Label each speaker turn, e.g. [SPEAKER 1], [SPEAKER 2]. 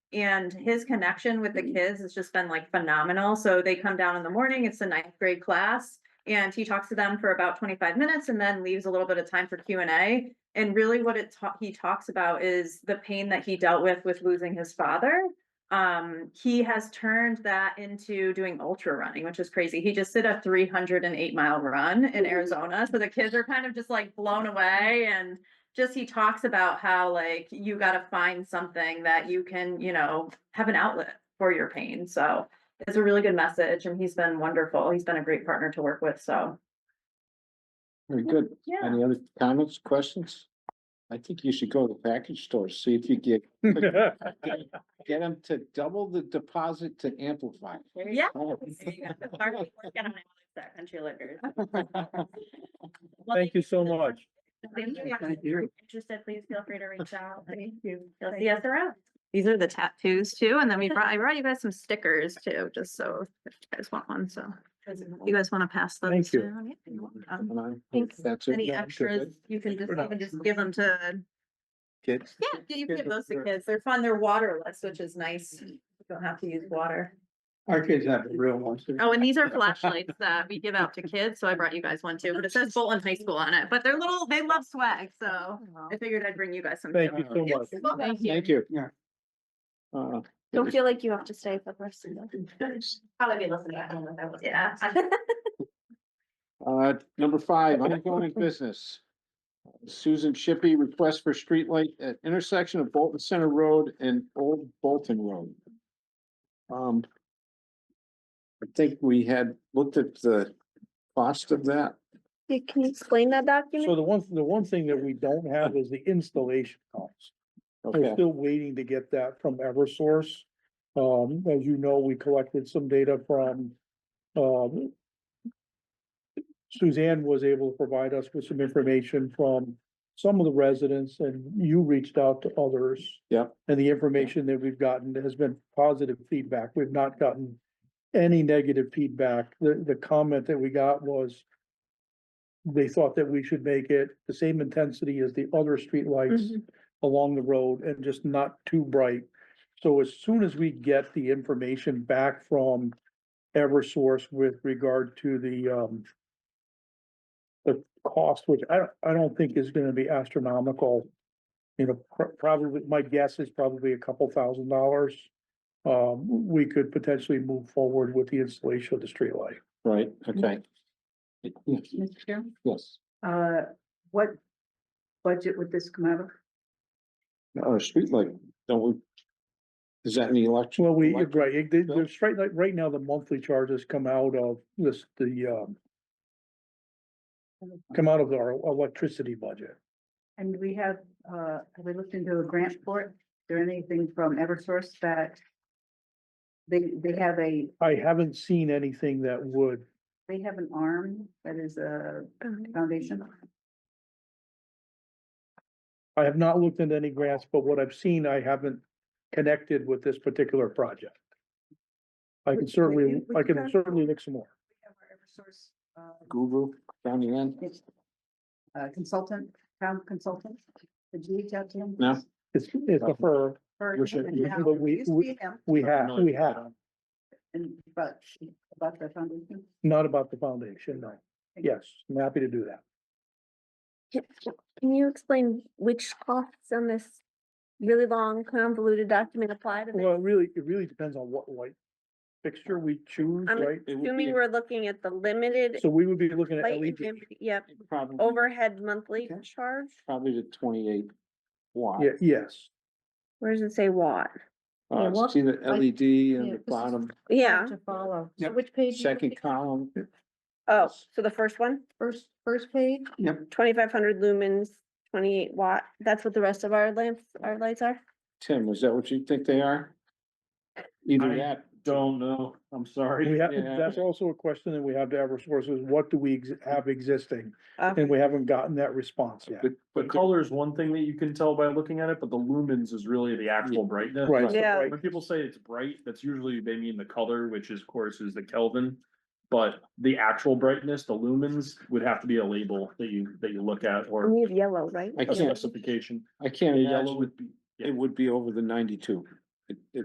[SPEAKER 1] And his connection with the kids has just been like phenomenal. So they come down in the morning, it's a ninth grade class. And he talks to them for about twenty-five minutes and then leaves a little bit of time for Q and A. And really what it ta- he talks about is the pain that he dealt with with losing his father. Um, he has turned that into doing ultra running, which is crazy. He just did a three hundred and eight mile run in Arizona. So the kids are kind of just like blown away and just he talks about how like you got to find something that you can, you know, have an outlet for your pain. So it's a really good message and he's been wonderful. He's been a great partner to work with. So
[SPEAKER 2] Very good.
[SPEAKER 1] yeah.
[SPEAKER 2] Any other comments, questions? I think you should go to the package store, see if you get, get them to double the deposit to amplify.
[SPEAKER 1] Yeah. Country liquors. Well,
[SPEAKER 3] Thank you so much.
[SPEAKER 1] Thank you.
[SPEAKER 4] Thank you.
[SPEAKER 1] Interested, please feel free to reach out.
[SPEAKER 4] Thank you.
[SPEAKER 1] You'll see us around. These are the tattoos too, and then we brought, I brought you guys some stickers too, just so if you guys want one, so you guys want to pass those.
[SPEAKER 3] Thank you.
[SPEAKER 1] down? Yeah, you're welcome.
[SPEAKER 2] And I think
[SPEAKER 1] Thanks.
[SPEAKER 2] that's it.
[SPEAKER 1] Any
[SPEAKER 2] Yeah, that's it.
[SPEAKER 1] extras, you can just,
[SPEAKER 3] For
[SPEAKER 1] you
[SPEAKER 3] now.
[SPEAKER 1] can just give them to,
[SPEAKER 2] Kids.
[SPEAKER 1] yeah, you can
[SPEAKER 2] Kids
[SPEAKER 1] give those to
[SPEAKER 2] are-
[SPEAKER 1] kids. They're fun, they're waterless, which is nice. You don't have to use water.
[SPEAKER 4] Our kids have the real ones. too.
[SPEAKER 1] Oh, and these are flashlights that we give out to kids, so I brought you guys one too, but it says Bolton High School on it, but they're little, they love swag, so I figured I'd bring you guys some.
[SPEAKER 3] Thank
[SPEAKER 1] too.
[SPEAKER 3] you so much.
[SPEAKER 1] Thank you.
[SPEAKER 2] Thank you.
[SPEAKER 4] Yeah.
[SPEAKER 2] Uh,
[SPEAKER 5] Don't feel like you have to stay for the rest of the.
[SPEAKER 1] Probably be listening at home if I was. Yeah.
[SPEAKER 2] Uh, number five, ongoing business. Susan Shippey, request for streetlight at intersection of Bolton Center Road and Old Bolton Road. Um. I think we had looked at the cost of that.
[SPEAKER 5] You can explain that
[SPEAKER 3] So
[SPEAKER 5] document?
[SPEAKER 3] the one, the one thing that we don't have is the installation costs. We're
[SPEAKER 2] Okay,
[SPEAKER 3] still waiting to get that from Eversource. Um, as you know, we collected some data from, um, Suzanne was able to provide us with some information from some of the residents and you reached out to others.
[SPEAKER 2] Yep.
[SPEAKER 3] And the information that we've gotten has been positive feedback. We've not gotten any negative feedback. The, the comment that we got was they thought that we should make it the same intensity as the other streetlights along the road and just not too bright. So as soon as we get the information back from Eversource with regard to the um the cost, which I don't, I don't think is gonna be astronomical. You know, pr- probably, my guess is probably a couple thousand dollars. Um, we could potentially move forward with the installation of the streetlight.
[SPEAKER 2] right, okay.
[SPEAKER 6] Mr. Chair,
[SPEAKER 2] Yes,
[SPEAKER 6] uh, what budget would this come out of?
[SPEAKER 2] or Uh, streetlight, don't we? Is that any election?
[SPEAKER 3] Well, we,
[SPEAKER 2] Elect-
[SPEAKER 3] right, it- the,
[SPEAKER 2] bill?
[SPEAKER 3] the straight, like, right now, the monthly charges come out of this, the, um. Come out of our electricity budget.
[SPEAKER 6] And we have, uh, have we looked into a grant for it? Is there anything from Eversource that they, they have a,
[SPEAKER 3] I haven't seen anything that would,
[SPEAKER 6] they have an arm that is a
[SPEAKER 5] Um,
[SPEAKER 6] foundation?
[SPEAKER 3] I have not looked into any grants, but what I've seen, I haven't connected with this particular project. I can
[SPEAKER 6] Would- would
[SPEAKER 3] certainly,
[SPEAKER 6] you- would
[SPEAKER 3] I
[SPEAKER 6] you
[SPEAKER 3] can
[SPEAKER 6] guys-
[SPEAKER 3] certainly look some more.
[SPEAKER 6] We have our Eversource, uh,
[SPEAKER 2] Guru, down the end,
[SPEAKER 6] it's, uh, consultant, town consultant. Did you reach out to him?
[SPEAKER 2] no?
[SPEAKER 3] It's, it's a fur,
[SPEAKER 6] Or-
[SPEAKER 2] we should-
[SPEAKER 6] Yeah,
[SPEAKER 3] but we-
[SPEAKER 6] it used to
[SPEAKER 3] we-
[SPEAKER 6] be him,
[SPEAKER 3] we have, we have,
[SPEAKER 6] And, but, about the foundation?
[SPEAKER 3] not about the foundation, no. Yes, I'm happy to do that.
[SPEAKER 5] Can you explain which costs on this really long convoluted document apply to
[SPEAKER 3] Well,
[SPEAKER 5] this?
[SPEAKER 3] it really, it really depends on what light fixture we choose,
[SPEAKER 5] I'm
[SPEAKER 3] right?
[SPEAKER 2] It would be
[SPEAKER 5] Assuming we're looking at the limited
[SPEAKER 3] So uh, we would be looking at
[SPEAKER 5] light
[SPEAKER 3] LED.
[SPEAKER 5] intensity, yep,
[SPEAKER 2] Probably,
[SPEAKER 5] overhead monthly
[SPEAKER 2] Mm-hmm. Okay.
[SPEAKER 5] charge?
[SPEAKER 2] probably the twenty-eight watt.
[SPEAKER 3] Yeah, yes.
[SPEAKER 5] Where does it say watt?
[SPEAKER 6] Yeah,
[SPEAKER 2] Uh,
[SPEAKER 6] what-
[SPEAKER 2] see the LED on
[SPEAKER 6] yeah,
[SPEAKER 2] the
[SPEAKER 6] this is-
[SPEAKER 2] bottom,
[SPEAKER 5] Yeah,
[SPEAKER 6] To follow.
[SPEAKER 4] Yep.
[SPEAKER 5] which page? you
[SPEAKER 2] second
[SPEAKER 5] looking-
[SPEAKER 2] column,
[SPEAKER 5] Oh, so the first one,
[SPEAKER 6] First, first page?
[SPEAKER 5] twenty-five hundred lumens, twenty-eight watt, that's what the rest of our lamps, our lights are?
[SPEAKER 2] Tim, is that what you think they are? Either
[SPEAKER 4] I-
[SPEAKER 2] that,
[SPEAKER 4] Don't know, Oh, I'm sorry.
[SPEAKER 3] We have,
[SPEAKER 2] Yeah.
[SPEAKER 3] that's also a question that we have to have sources. what do we ex- have existing?
[SPEAKER 5] Okay.
[SPEAKER 3] And we haven't gotten that response yet.
[SPEAKER 2] but,
[SPEAKER 4] The
[SPEAKER 2] but
[SPEAKER 4] color is one thing that you can tell by looking at it, but the lumens is really the actual brightness.
[SPEAKER 3] Right. so,
[SPEAKER 5] Yeah.
[SPEAKER 3] right,
[SPEAKER 4] When people say it's bright, that's usually they mean the color, which is, of course, is the Kelvin. But the actual brightness, the lumens, would have to be a label that you, that you look at or
[SPEAKER 5] We have yellow, right?
[SPEAKER 2] I
[SPEAKER 4] a
[SPEAKER 2] can't,
[SPEAKER 4] specification.
[SPEAKER 2] I can't
[SPEAKER 4] Yellow
[SPEAKER 2] imagine,
[SPEAKER 4] would be,
[SPEAKER 2] it would be over the ninety-two. It, it